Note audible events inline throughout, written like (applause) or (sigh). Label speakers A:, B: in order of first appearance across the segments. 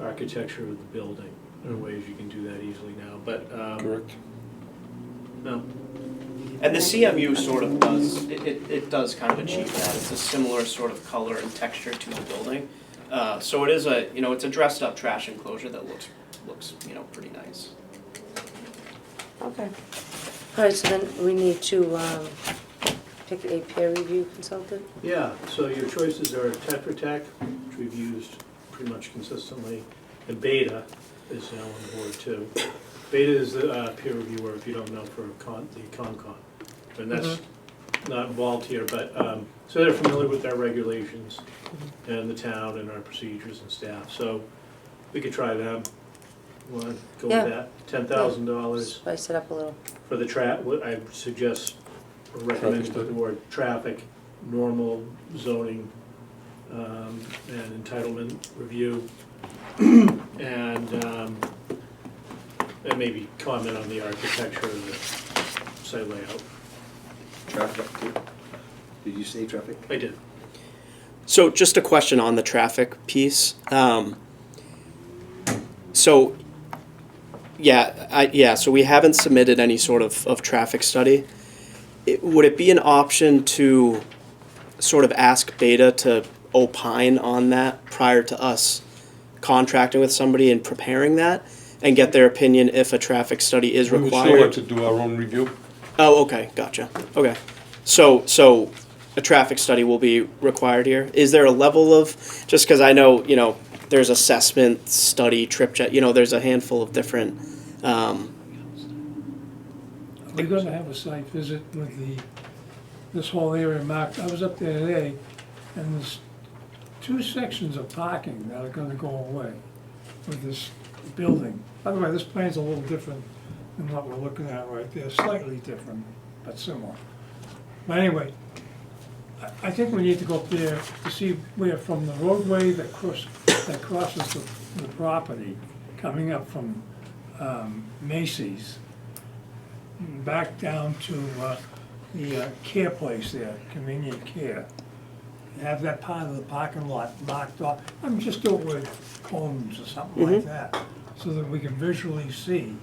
A: architecture of the building. There are ways you can do that easily now, but, um,
B: Correct.
A: no,
C: And the CMU sort of does, it, it, it does kind of achieve that, it's a similar sort of color and texture to the building. Uh, so it is a, you know, it's a dressed up trash enclosure that looks, looks, you know, pretty nice.
D: Okay. All right, so then we need to um, pick a peer review consultant?
A: yeah, so your choices are Tetra Tech, which we've used pretty much consistently, and Beta is now on board too. Beta is the uh, peer reviewer, if you don't know, for con, the Concon, and that's not involved here, but, um, so they're familiar with our regulations and the town and our procedures and staff, so we could try them. Wanna go with
D: Yeah.
A: that? Ten thousand dollars.
D: Spice it up a little.
A: For the tra, what I suggest, or recommend
B: Traffic
A: to the
B: study.
A: board, traffic, normal zoning, um, and entitlement review. And, um, and maybe comment on the architecture of the site layout.
E: Traffic, too. Did you say traffic?
A: I did.
C: So just a question on the traffic piece. Um, so, yeah, I, yeah, so we haven't submitted any sort of, of traffic study. It, would it be an option to sort of ask Beta to opine on that prior to us contracting with somebody and preparing that? And get their opinion if a traffic study is
B: We would
C: required?
B: still like to do our own review.
C: Oh, okay, gotcha. Okay, so so a traffic study will be required here. Is there a level of just because I know you know there's assessment study trip check. You know, there's a handful of different. Um,
F: We're gonna have a site visit with the, this whole area marked, I was up there today, and there's two sections of parking that are gonna go away with this building. By the way, this plan's a little different than what we're looking at right there, slightly different, but similar. But anyway, I, I think we need to go up there to see where from the roadway that cross, that crosses the, the property, coming up from, um, Macy's, back down to uh, the uh, care place there, convenient care. Have that part of the parking lot marked off, I'm just do it with cones or something like that, so that we can visually see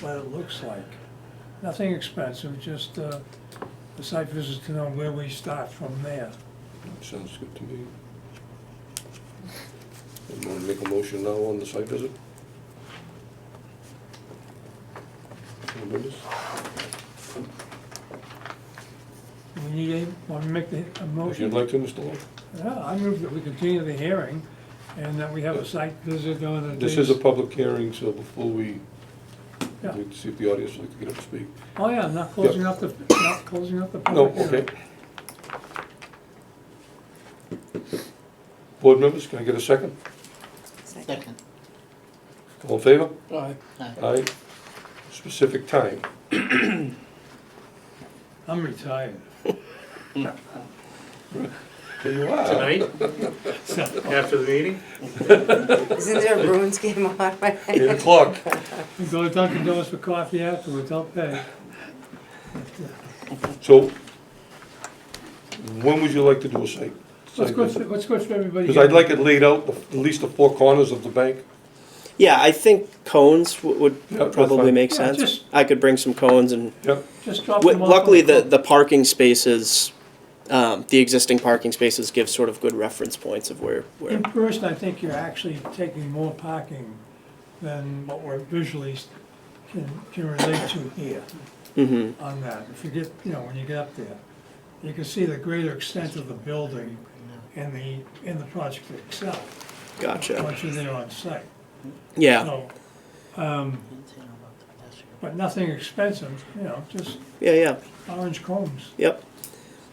F: what it looks like. Nothing expensive, just uh, a site visit to know where we start from there.
B: Sounds good to me. You want to make a motion now on the site visit? Anybody?
F: Do We need a, want to make the a
B: If you'd
F: motion?
B: like to, Mr. Long.
F: Yeah, I move that we continue the hearing and that we have a site visit on the
B: This
F: days.
B: is a public hearing, so before we,
F: Yeah.
B: we'd see if the audience would like to get up to speak.
F: Oh, yeah, not closing up the, not closing up the
B: No,
F: public hearing.
B: okay. Board members, can I get a second?
G: Second.
B: All in favor?
A: Aye.
B: Aye. Specific time.
F: I'm retired. (laughs)
B: There you are.
A: Tonight, after the meeting?
D: Isn't there a Bruins game on right now?
B: Eight o'clock.
F: We go to Dunkin' Donuts for coffee afterwards, I'll pay.
B: So, when would you like to do a site?
F: What's good, for- what's good for everybody?
B: Because I'd like it laid out, the- at least the four corners of the bank.
C: yeah, I think cones w- would
B: Yeah, that's
C: probably
B: fine.
C: make
F: Yeah,
C: sense.
F: just-
C: I could bring some cones and
B: Yep,
F: Just drop
C: w-
F: them off.
C: luckily the the parking spaces. Um, the existing parking spaces give sort of good reference points of where, where
F: In person, I think you're actually taking more parking than what we're visually s- can, can relate to here
C: hmm
F: on that. If you get, you know, when you get up there, you can see the greater extent of the building and the, and the project itself,
C: gotcha.
F: once you're there on site.
C: Yeah,
F: So, um, but nothing expensive, you know, just
C: yeah, yeah.
F: orange combs.
C: Yep.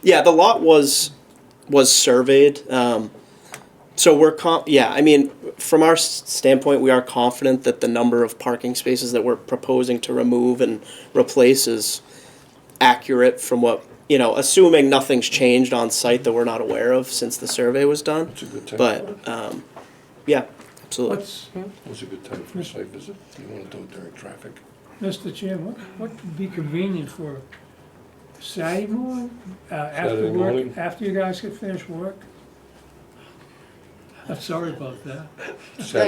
C: Yeah, the lot was was surveyed. Um, so we're com- yeah, I mean, from our s- standpoint, we are confident that the number of parking spaces that we're proposing to remove and replace is accurate from what, you know, assuming nothing's changed on site that we're not aware of since the survey was done.
B: it's a good time.
C: But um, yeah, absolutely.
F: What's,
B: It's a good time for a site visit. You want to do it during traffic.
F: Mr. Chairman, what, what would be convenient for Saturday morning? Uh, after
B: Saturday morning?
F: work, after you guys get finished work? I'm sorry about that.